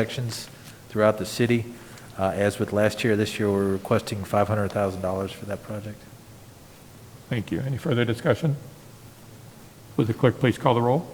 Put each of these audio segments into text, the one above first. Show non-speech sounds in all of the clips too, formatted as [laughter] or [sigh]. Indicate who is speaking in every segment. Speaker 1: sections throughout the city. Uh, As with last year, this year, we're requesting $500,000 for that project.
Speaker 2: Thank you. Any further discussion? Would the clerk please call the roll?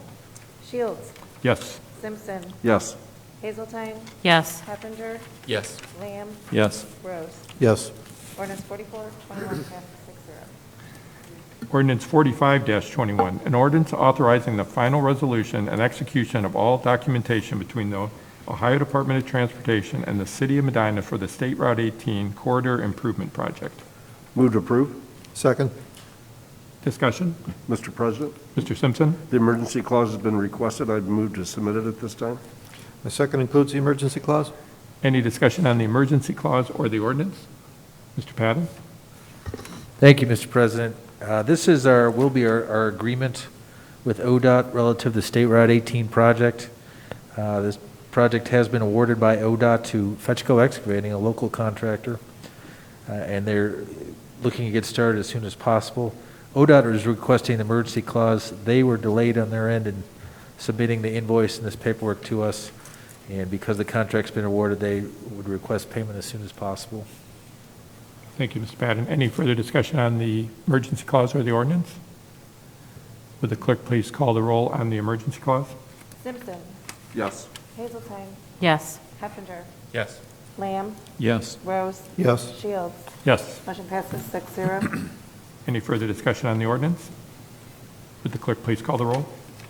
Speaker 3: Shields,
Speaker 2: Yes.
Speaker 3: Simpson,
Speaker 4: Yes.
Speaker 3: Hazeltine,
Speaker 5: Yes,
Speaker 3: Heffinger,
Speaker 6: Yes.
Speaker 3: Lamb,
Speaker 4: Yes.
Speaker 3: Rose.
Speaker 4: Yes.
Speaker 3: Ordinance 44, [coughs] 21, passes six zero.
Speaker 2: Ordinance 45-21, an ordinance authorizing the final resolution and execution of all documentation between the Ohio Department of Transportation and the City of Medina for the State Route 18 Corridor Improvement Project.
Speaker 4: Move to approve.
Speaker 7: Second,
Speaker 2: Discussion?
Speaker 4: Mr. President,
Speaker 2: Mr. Simpson?
Speaker 4: the emergency clause has been requested. I'd move to submit it at this time.
Speaker 7: the second includes the emergency clause?
Speaker 2: Any discussion on the emergency clause or the ordinance? Mr. Patton?
Speaker 1: Thank you, Mr. President. Uh, This is our, will be our our agreement with ODOT relative to the State Route 18 project. Uh, This project has been awarded by ODOT to Fetchco Excavating, a local contractor, uh, and they're looking to get started as soon as possible. ODOT is requesting an emergency clause. They were delayed on their end in submitting the invoice and this paperwork to us, and because the contract's been awarded, they would request payment as soon as possible.
Speaker 2: Thank you, Mr. Patton. Any further discussion on the emergency clause or the ordinance? Would the clerk please call the roll on the emergency clause?
Speaker 3: Simpson,
Speaker 4: Yes.
Speaker 3: Hazeltine,
Speaker 5: yes,
Speaker 3: Heffinger,
Speaker 6: Yes.
Speaker 3: Lamb,
Speaker 6: Yes.
Speaker 3: Rose.
Speaker 7: Yes.
Speaker 3: Shields.
Speaker 2: Yes.
Speaker 3: Motion passes six zero.
Speaker 2: Any further discussion on the ordinance? Would the clerk please call the roll?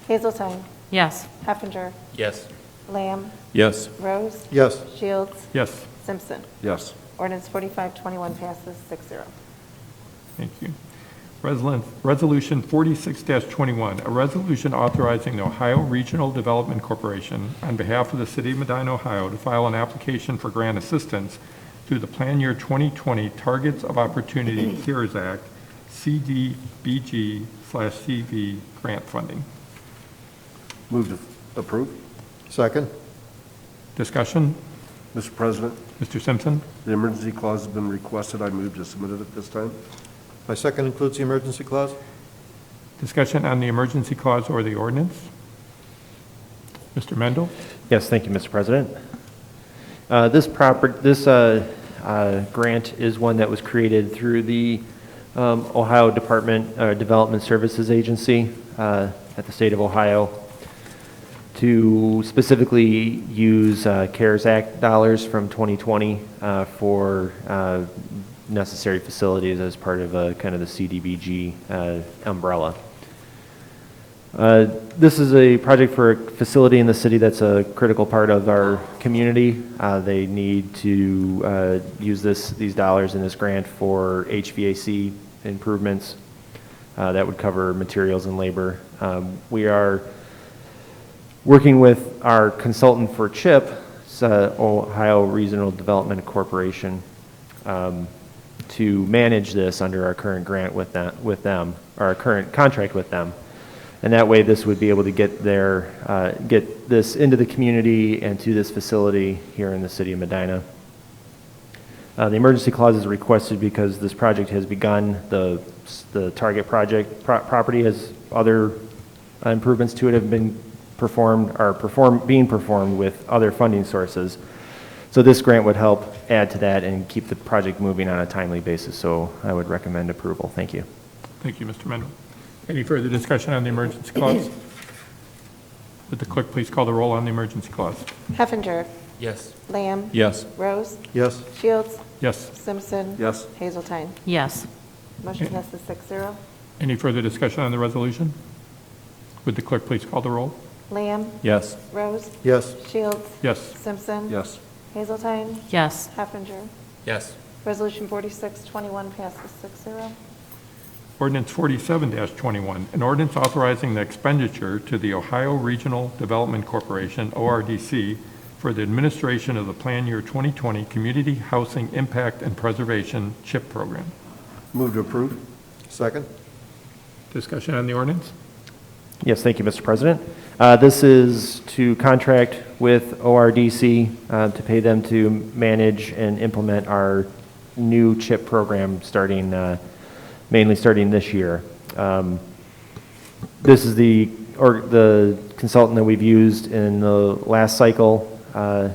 Speaker 3: Hazeltine,
Speaker 5: yes,
Speaker 3: Heffinger,
Speaker 6: Yes.
Speaker 3: Lamb,
Speaker 6: Yes.
Speaker 3: Rose.
Speaker 7: Yes.
Speaker 3: Shields,
Speaker 2: Yes.
Speaker 3: Simpson.
Speaker 4: Yes.
Speaker 3: Ordinance 45, 21 passes six zero.
Speaker 2: Thank you. Resolu- Resolution 46-21, a resolution authorizing the Ohio Regional Development Corporation on behalf of the City of Medina, Ohio, to file an application for grant assistance through the Plan Year 2020 Targets of Opportunity CARES Act, CDBG/CV grant funding.
Speaker 4: Move to approve.
Speaker 7: Second,
Speaker 2: Discussion?
Speaker 4: Mr. President,
Speaker 2: Mr. Simpson?
Speaker 4: the emergency clause has been requested. I move to submit it at this time.
Speaker 7: my second includes the emergency clause?
Speaker 2: Discussion on the emergency clause or the ordinance? Mr. Mendel?
Speaker 8: Yes, thank you, Mr. President. Uh, This proper, this uh, uh, grant is one that was created through the um, Ohio Department, uh, Development Services Agency uh, at the state of Ohio to specifically use uh, CARES Act dollars from 2020 uh, for uh, necessary facilities as part of uh, kind of the CDBG uh, umbrella. Uh, This is a project for a facility in the city that's a critical part of our community. Uh, They need to uh, use this, these dollars in this grant for HVAC improvements uh, that would cover materials and labor. Um, We are working with our consultant for CHIP, it's, uh, Ohio Regional Development Corporation, um, to manage this under our current grant with that, with them, our current contract with them. And that way, this would be able to get their, uh, get this into the community and to this facility here in the city of Medina. Uh, The emergency clause is requested because this project has begun. The, the target project, pro- property has, other improvements to it have been performed, are perform, being performed with other funding sources. So this grant would help add to that and keep the project moving on a timely basis. So I would recommend approval. Thank you.
Speaker 2: Thank you, Mr. Mendel. Any further discussion on the emergency clause? Would the clerk please call the roll on the emergency clause?
Speaker 3: Heffinger,
Speaker 6: Yes.
Speaker 3: Lamb,
Speaker 6: Yes.
Speaker 3: Rose.
Speaker 7: Yes.
Speaker 3: Shields,
Speaker 2: Yes.
Speaker 3: Simpson.
Speaker 4: Yes.
Speaker 3: Hazeltine.
Speaker 5: yes,
Speaker 3: Motion passes six zero.
Speaker 2: Any further discussion on the resolution? Would the clerk please call the roll?
Speaker 3: Lamb,
Speaker 6: Yes.
Speaker 3: Rose,
Speaker 7: Yes.
Speaker 3: Shields,
Speaker 2: Yes.
Speaker 3: Simpson.
Speaker 4: Yes.
Speaker 3: Hazeltine,
Speaker 5: yes,
Speaker 3: Heffinger.
Speaker 6: Yes.
Speaker 3: Resolution 4621 passes six zero.
Speaker 2: Ordinance 47-21, an ordinance authorizing the expenditure to the Ohio Regional Development Corporation, ORDC, for the administration of the Plan Year 2020 Community Housing Impact and Preservation CHIP Program.
Speaker 4: Move to approve.
Speaker 7: Second,
Speaker 2: Discussion on the ordinance?
Speaker 8: Yes, thank you, Mr. President. Uh, This is to contract with ORDC uh, to pay them to manage and implement our new CHIP program starting, uh, mainly starting this year. Um, This is the, or the consultant that we've used in the last cycle uh,